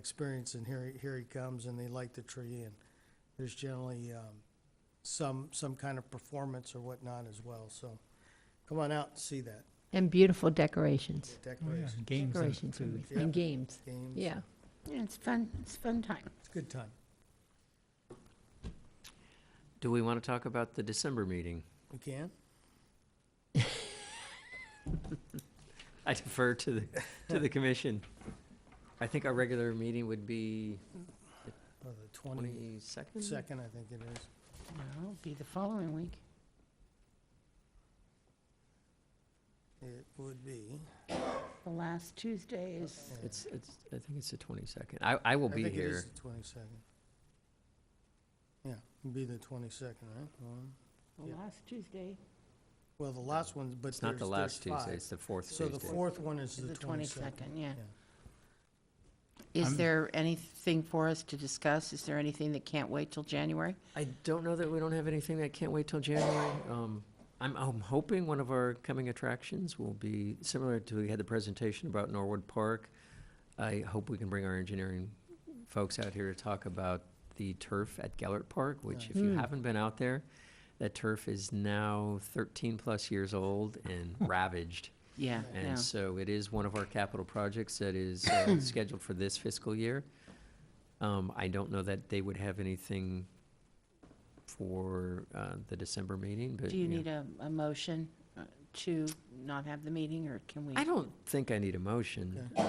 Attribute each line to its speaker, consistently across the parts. Speaker 1: experience, and here, he- here he comes, and they light the tree, and there's generally um, some, some kind of performance or whatnot as well, so come on out and see that,
Speaker 2: And beautiful decorations,
Speaker 3: Oh, yeah,
Speaker 1: decorations,
Speaker 3: Games and
Speaker 2: decorations
Speaker 3: food.
Speaker 1: Yeah.
Speaker 2: and games.
Speaker 1: games.
Speaker 2: Yeah.
Speaker 4: Yeah, it's fun, it's fun time.
Speaker 1: It's a good time.
Speaker 5: Do we want to talk about the December meeting?
Speaker 1: We can?
Speaker 5: I defer to the, to the commission. I think our regular meeting would be
Speaker 1: Oh, The
Speaker 5: twenty-second?
Speaker 1: twenty-second, I think it is.
Speaker 4: Well, it'll be the following week.
Speaker 1: It would be.
Speaker 4: The last Tuesday is,
Speaker 1: yeah.
Speaker 5: It's, it's, I think it's the twenty-second. I, I will
Speaker 1: I
Speaker 5: be
Speaker 1: think it is
Speaker 5: here.
Speaker 1: the twenty-second. Yeah, it'd be the twenty-second, right? One.
Speaker 4: the
Speaker 1: Yeah.
Speaker 4: last Tuesday
Speaker 1: Well, the last one, but
Speaker 5: It's not the
Speaker 1: there's-
Speaker 5: last
Speaker 1: there's
Speaker 5: Tuesday,
Speaker 1: five.
Speaker 5: it's the fourth
Speaker 1: So
Speaker 5: Tuesday.
Speaker 1: the fourth one is
Speaker 4: is
Speaker 1: the
Speaker 4: the
Speaker 1: twenty-second.
Speaker 4: twenty-second, yeah.
Speaker 3: I'm-
Speaker 6: Is there anything for us to discuss? Is there anything that can't wait till January?
Speaker 5: I don't know that we don't have anything that can't wait till January. Um, I'm, I'm hoping one of our coming attractions will be similar to, we had the presentation about Norwood Park. I hope we can bring our engineering folks out here to talk about the turf at Gellert Park, which if you
Speaker 2: Nice. Mm.
Speaker 5: haven't been out there, that turf is now thirteen-plus years old and ravaged.
Speaker 6: Yeah, no.
Speaker 5: And so it is one of our capital projects that is uh, scheduled for this fiscal year. Um, I don't know that they would have anything for uh, the December meeting, but.
Speaker 6: Do you
Speaker 5: uh, yeah.
Speaker 6: need a, a motion uh, to not have the meeting, or can we?
Speaker 5: I don't think I need a motion. Um,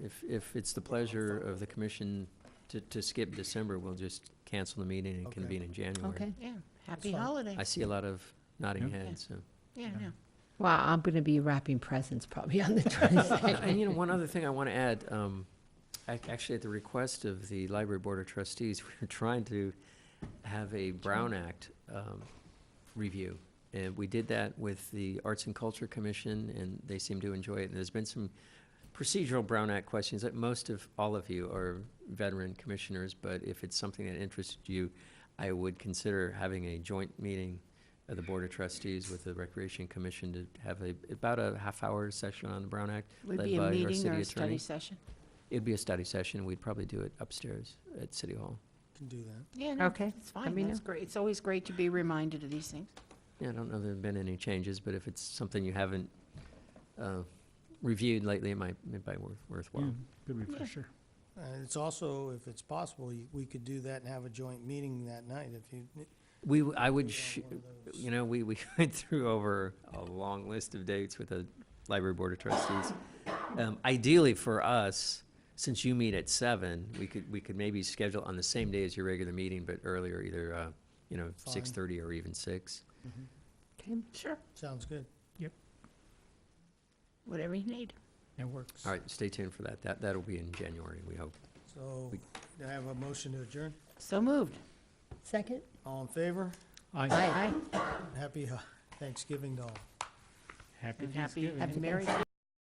Speaker 5: If, if it's the pleasure of the commission to, to skip December, we'll just cancel the meeting and
Speaker 1: Okay.
Speaker 5: convene in January.
Speaker 2: Okay.
Speaker 6: Yeah, happy
Speaker 1: fine.
Speaker 6: holiday.
Speaker 5: I see a lot of nodding
Speaker 3: Yeah.
Speaker 5: heads, so.
Speaker 6: Yeah, no.
Speaker 2: Well, I'm going to be wrapping presents probably on the
Speaker 5: And- And
Speaker 2: 22nd.
Speaker 5: you know, one other thing I want to add, um, ac- actually at the request of the Library Board of Trustees, we're trying to have a Brown Act, um, review. And we did that with the Arts and Culture Commission and they seem to enjoy it. And there's been some procedural Brown Act questions that most of, all of you are veteran commissioners, but if it's something that interests you, I would consider having a joint meeting of the Board of Trustees with the Recreation Commission to have a, about a half-hour session on the Brown Act.
Speaker 6: Would
Speaker 5: led
Speaker 6: be a
Speaker 5: by our
Speaker 6: meeting
Speaker 5: city
Speaker 6: or a study
Speaker 5: attorney.
Speaker 6: session?
Speaker 5: It'd be a study session, we'd probably do it upstairs at City Hall.
Speaker 1: Can do that.
Speaker 6: Yeah, no,
Speaker 2: Okay,
Speaker 6: it's
Speaker 2: let
Speaker 6: fine,
Speaker 2: me
Speaker 6: that's
Speaker 2: know.
Speaker 6: great. It's always great to be reminded of these things.
Speaker 5: Yeah, I don't know there've been any changes, but if it's something you haven't, uh, reviewed lately, it might, it might worth,
Speaker 3: Yeah,
Speaker 5: worthwhile.
Speaker 3: Good refresher.
Speaker 1: And Uh, it's also, if it's possible, you- we could do that and have a joint meeting that night if you. n-
Speaker 5: We, w- I would,
Speaker 1: have
Speaker 5: sh-
Speaker 1: one of those.
Speaker 5: you know, we, we went through over a long list of dates with the library board of trustees. Um, ideally for us, since you meet at seven, we could, we could maybe schedule on the same day as your regular meeting, but earlier, either, uh, you know,
Speaker 1: Fine.
Speaker 5: six thirty or even six.
Speaker 2: Okay.
Speaker 6: Sure.
Speaker 1: Sounds good.
Speaker 4: Whatever you need.
Speaker 3: It works.
Speaker 5: All right, stay tuned for that. That, that'll be in January, we hope.
Speaker 1: So,
Speaker 5: We-
Speaker 1: do I have a motion to adjourn?
Speaker 6: So moved.
Speaker 2: Second?
Speaker 1: All in favor?
Speaker 3: Aye.
Speaker 6: Aye.
Speaker 1: Happy uh, Thanksgiving to all.
Speaker 3: Happy
Speaker 6: And happy,
Speaker 3: Thanksgiving.
Speaker 6: and Merry